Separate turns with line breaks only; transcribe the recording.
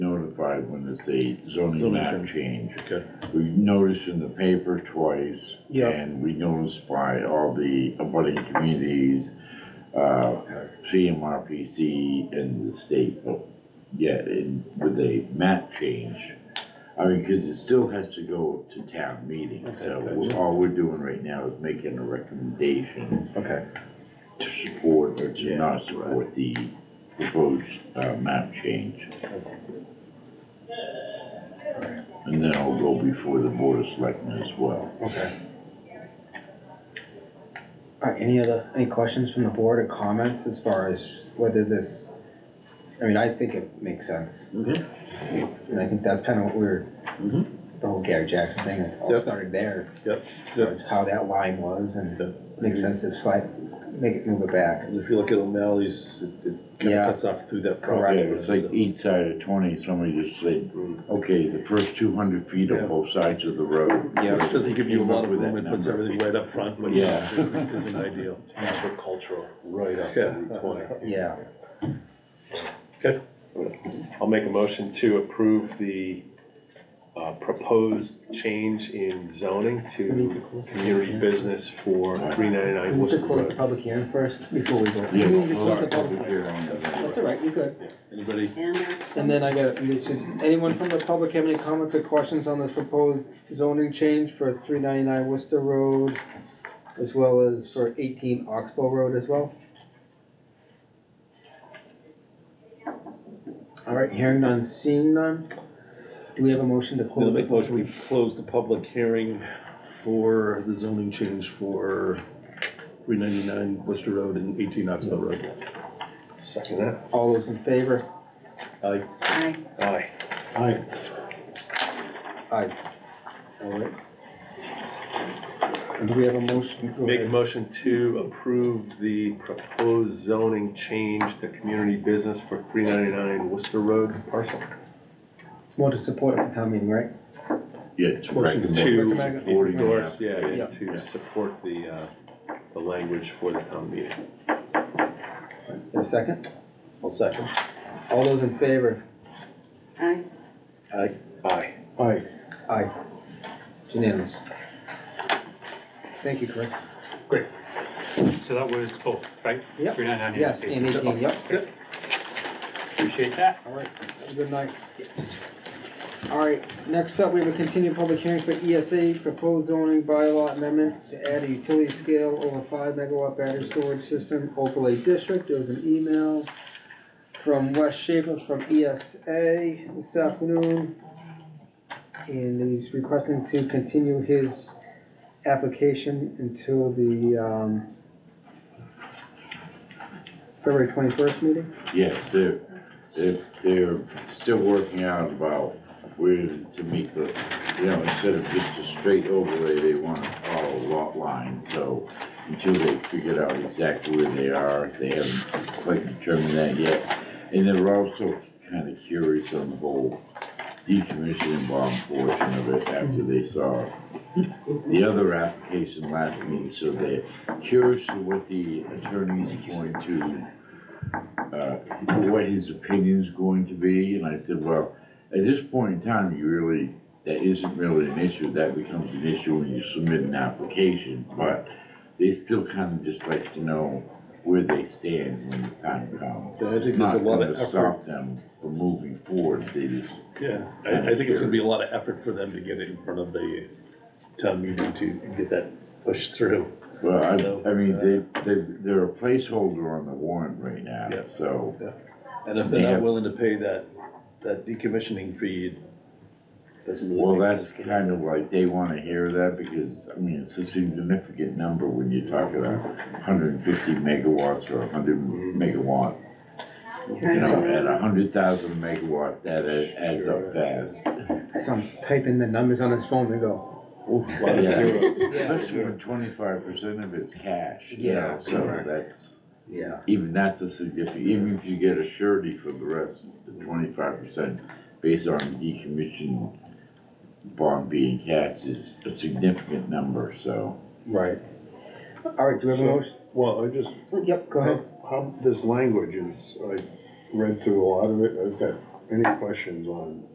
it's a zoning
Zoning
map
change.
change.
Okay.
We noticed in the paper twice.
Yeah.
And we noticed by all the abutting communities, uh, CMRPC and the state, but yet in, with a map change. I mean, cause it still has to go to town meeting, so
Okay,
we're- all we're doing right now is making a recommendation
Okay.
to support or to
Yeah,
not
right.
support the proposed, uh, map change. And then I'll go before the board of selectmen as well.
Okay.
All right, any other, any questions from the board or comments as far as whether this, I mean, I think it makes sense.
Okay.
And I think that's kind of what we were,
Mhm.
the whole Gary Jackson thing, it all
Yep.
started there.
Yep, yep.
Was how that line was and
Yep.
makes sense to slide, make it move it back.
And if you look at O'Malley's, it- it kinda
Yeah.
cuts off through that
Right,
Yeah,
property.
it's like each side of twenty, somebody just said,
Mm.
okay, the first two hundred feet
Yeah.
on both sides of the road.
Yeah.
Which doesn't give you a
Came up
lot of
with
room,
that
it puts
number.
everything right up front, which
Yeah.
isn't isn't ideal.
agricultural right up
Yeah.
to Route twenty.
Yeah,
I'll make a motion to approve the uh, proposed change in zoning to community business for three ninety-nine
we
Worcester
should close the
Road.
public hearing first before we go.
Yeah,
We
well,
just
we'll
close the
have
public-
public hearing on that.
That's all right, you're good.
Anybody?
And then I got, you should, anyone from the public have any comments or questions on this proposed zoning change for three ninety-nine Worcester Road? As well as for eighteen Oxbow Road as well? Alright, hearing none, seeing none, do we have a motion to
I'll
close?
make
the
a motion, we close the public hearing for the zoning change for three ninety-nine Worcester Road and eighteen Oxbow Road.
Second that.
All those in favor?
Aye.
Aye.
Aye.
Aye.
Aye. Alright. And do we have a motion? Go
Make a
ahead.
motion to approve the proposed zoning change to community business for three ninety-nine Worcester Road parcel.
More to support at the town meeting, right?
Yeah, to
Motion to
To
recommend-
endorse, yeah,
Yeah.
and to support the, uh, the language for the town meeting.
Is there a second?
I'll second.
All those in favor?
Aye.
Aye.
Aye.
Aye.
Aye. It's Unanimous. Thank you, Chris.
So that was both, right?
Yep.
Three nine nine.
Yes, and eighteen, yep,
Appreciate that.
all right, have a good night. All right, next up, we have a continued public hearing for ESA proposed zoning bylaw amendment to add a utility scale over five megawatt battery storage system overlay district. There was an email from Wes Schaefer from ESA this afternoon. And he's requesting to continue his application until the, um, February twenty-first meeting?
Yeah, they're, they're, they're still working out about where to meet the, you know, instead of just a straight overlay, they wanna follow a lot line, so until they figure out exactly where they are, they haven't quite determined that yet. And they were also kinda curious on the whole decommissioning bomb portion of it after they saw the other application last meeting, so they're curious to what the attorney's going to uh, what his opinion's going to be, and I said, well, at this point in time, you really, that isn't really an issue, that becomes an issue when you submit an application, but they still kind of just like to know where they stand when the time comes.
I think
It's
there's a
not
lot
gonna
of effort,
stop them from moving forward, they just,
yeah, I, I think it's gonna be a lot of effort for them to get it in front of the town meeting to get that pushed through.
well,
So,
I, I mean,
uh,
they, they, they're a placeholder on the warrant right now,
Yeah.
so.
And if
They
they're not
have-
willing to pay that, that decommissioning fee, it doesn't really
Well,
make
that's
sense.
kind of like, they wanna hear that, because, I mean, it's a significant number when you're talking about hundred and fifty megawatts or hundred
Mm-hmm.
megawatt. You know, at hundred thousand megawatt, that a- adds up fast.
So I'm typing the numbers on his phone to go.
Lot of
Yeah.
zeros.
Especially when twenty-five percent of it's cash, you know,
Yeah,
so
correct.
that's,
Yeah.
even that's a significant, even if you get a surety for the rest, the twenty-five percent based on decommissioned bond being cash is a significant number, so.
Right. All right, do we have a motion?
Well, I just,
Yep, go ahead.
how, this language is, I read through a lot of it, I've got any questions on